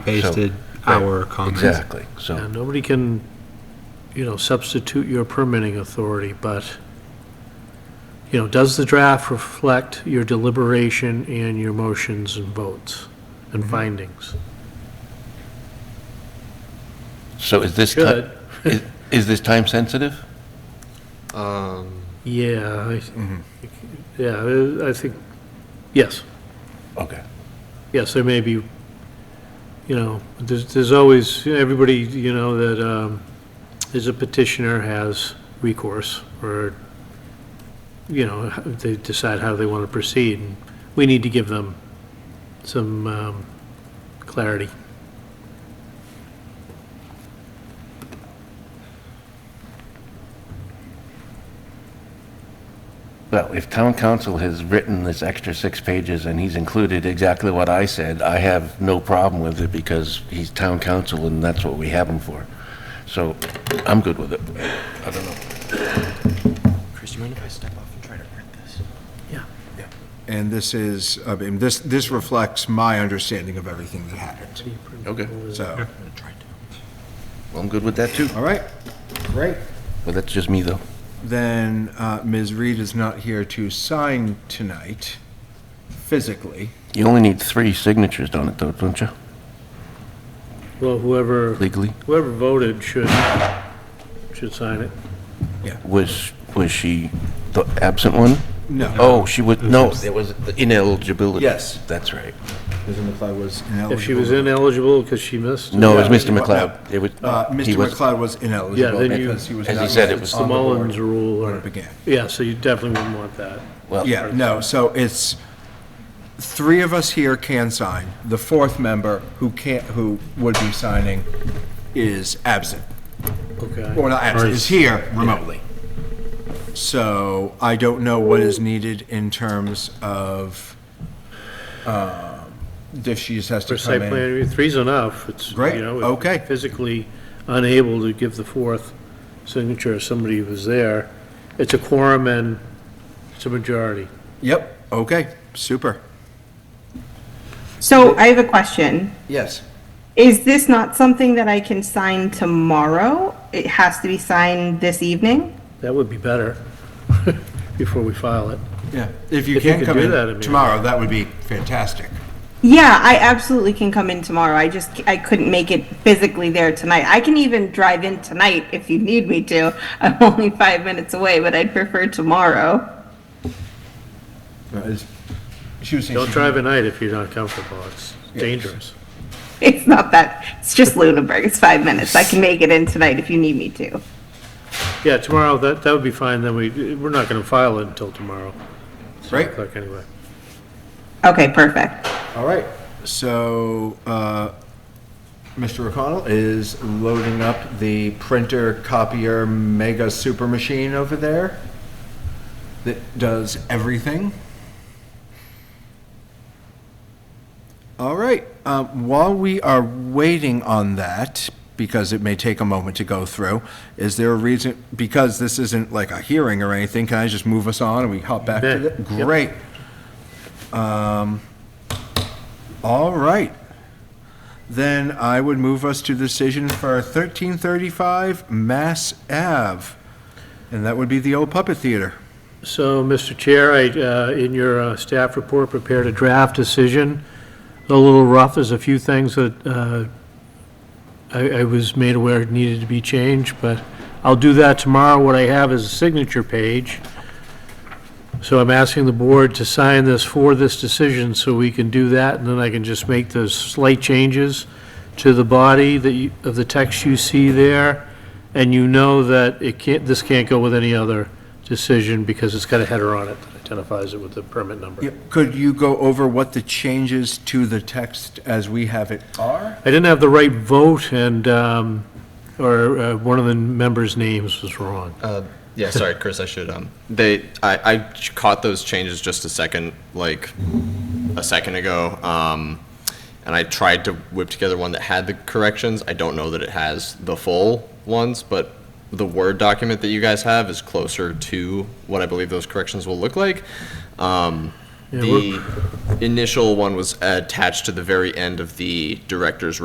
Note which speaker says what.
Speaker 1: pasted our comments.
Speaker 2: Exactly,
Speaker 3: Yeah,
Speaker 2: so,
Speaker 3: nobody can, you know, substitute your permitting authority, but, you know, does the draft reflect your deliberation and your motions and votes and findings?
Speaker 2: so is this, ti-
Speaker 3: Should.
Speaker 2: is- is this time sensitive?
Speaker 3: Yeah, I, yeah, I think, yes,
Speaker 2: Okay,
Speaker 3: yes, there may be, you know, there's, there's always, everybody, you know, that, um, is a petitioner has recourse, or, you know, they decide how they want to proceed, and we need to give them some, um, clarity.
Speaker 2: well, if town council has written this extra six pages and he's included exactly what I said, I have no problem with it because he's town council and that's what we have him for. So, I'm good with it. I don't know.
Speaker 4: Chris, do you mind if I step off and try to print this?
Speaker 3: Yeah.
Speaker 5: And this is, I mean, this, this reflects my understanding of everything that happened.
Speaker 2: Okay,
Speaker 5: So,
Speaker 4: Try to.
Speaker 2: well, I'm good with that too,
Speaker 5: all right, great.
Speaker 2: but that's just me though.
Speaker 5: Then uh, Ms. Reed is not here to sign tonight physically.
Speaker 2: You only need three signatures on it though, don't you,
Speaker 3: Well, whoever,
Speaker 2: legally?
Speaker 3: whoever voted should, should sign it.
Speaker 2: Was, was she the absent one?
Speaker 5: No.
Speaker 2: Oh, she was, no, there was ineligibility.
Speaker 5: Yes.
Speaker 2: That's right.
Speaker 5: Ms. McLeod was
Speaker 3: If she was
Speaker 5: ineligible.
Speaker 3: ineligible because she missed.
Speaker 2: No, it was
Speaker 5: Yeah.
Speaker 2: Mr. McLeod. It was,
Speaker 5: Uh,
Speaker 2: he
Speaker 5: Mr.
Speaker 2: was-
Speaker 5: McLeod was
Speaker 3: Yeah,
Speaker 5: ineligible
Speaker 3: then you,
Speaker 5: because he was
Speaker 2: as he
Speaker 5: not
Speaker 2: said, it
Speaker 5: listed
Speaker 2: was-
Speaker 3: the
Speaker 5: on the board
Speaker 3: Mullins rule
Speaker 5: When
Speaker 3: or.
Speaker 5: it began.
Speaker 3: Yeah, so you definitely wouldn't want that.
Speaker 2: well,
Speaker 5: Yeah, no, so it's, three of us here can sign. The fourth member who can't, who would be signing is absent.
Speaker 3: Okay.
Speaker 5: Or not absent, is here remotely. So I don't know what is needed in terms of, um, if she just has to
Speaker 3: For
Speaker 5: come
Speaker 3: site plan,
Speaker 5: in.
Speaker 3: review, three's enough. It's,
Speaker 5: Great,
Speaker 3: you know, if
Speaker 5: okay.
Speaker 3: Physically unable to give the fourth signature if somebody was there. It's a quorum and it's a majority.
Speaker 5: Yep, okay, super.
Speaker 6: So I have a question.
Speaker 5: Yes.
Speaker 6: Is this not something that I can sign tomorrow? It has to be signed this evening?
Speaker 3: That would be better before we file it.
Speaker 5: Yeah, if you
Speaker 3: If you
Speaker 5: can
Speaker 3: could
Speaker 5: come
Speaker 3: do that, I
Speaker 5: in
Speaker 3: mean-
Speaker 5: tomorrow, that would be fantastic.
Speaker 6: Yeah, I absolutely can come in tomorrow. I just, I couldn't make it physically there tonight. I can even drive in tonight if you need me to. I'm only five minutes away, but I'd prefer tomorrow.
Speaker 5: She was saying.
Speaker 3: Don't
Speaker 5: she-
Speaker 3: drive at night if you're not comfortable. It's dangerous.
Speaker 6: It's not that, it's just Lunenburg. It's five minutes. I can make it in tonight if you need me to.
Speaker 3: Yeah, tomorrow, that, that would be fine. Then we, we're not going to file it until tomorrow.
Speaker 5: Right.
Speaker 3: Seven o'clock Anyway.
Speaker 6: Okay, perfect.
Speaker 5: All right, so uh, Mr. O'Connell is loading up the printer copier mega super machine over there that does everything. All right, um, while we are waiting on that, because it may take a moment to go through, is there a reason, because this isn't like a hearing or anything, can I just move us on and we hop back to
Speaker 3: Yeah,
Speaker 5: the?
Speaker 3: yep.
Speaker 5: Great. Um, All right. Then I would move us to decision for 1335 Mass Ave. And that would be the old puppet theater.
Speaker 3: So, Mr. Chair, I, uh, in your uh, staff report, prepared a draft decision. It's A little rough, there's a few things that uh, I I was made aware needed to be changed, but I'll do that tomorrow. What I have is a signature page. So I'm asking the board to sign this for this decision, so we can do that, and then I can just make those slight changes to the body that you, of the text you see there, and you know that it can't, this can't go with any other decision, because it's got a header on it that identifies it with the permit number.
Speaker 5: Could you go over what the changes to the text as we have it are?
Speaker 3: I didn't have the right vote, and, um, or uh, one of the members' names was wrong.
Speaker 4: Uh, yeah, sorry, Chris, I should, um, they, I, I ch- caught those changes just a second, like, a second ago, um, and I tried to whip together one that had the corrections. I don't know that it has the full ones, but the Word document that you guys have is closer to what I believe those corrections will look like. Um,
Speaker 3: Yeah, we're-
Speaker 4: the initial one was attached to the very end of the director's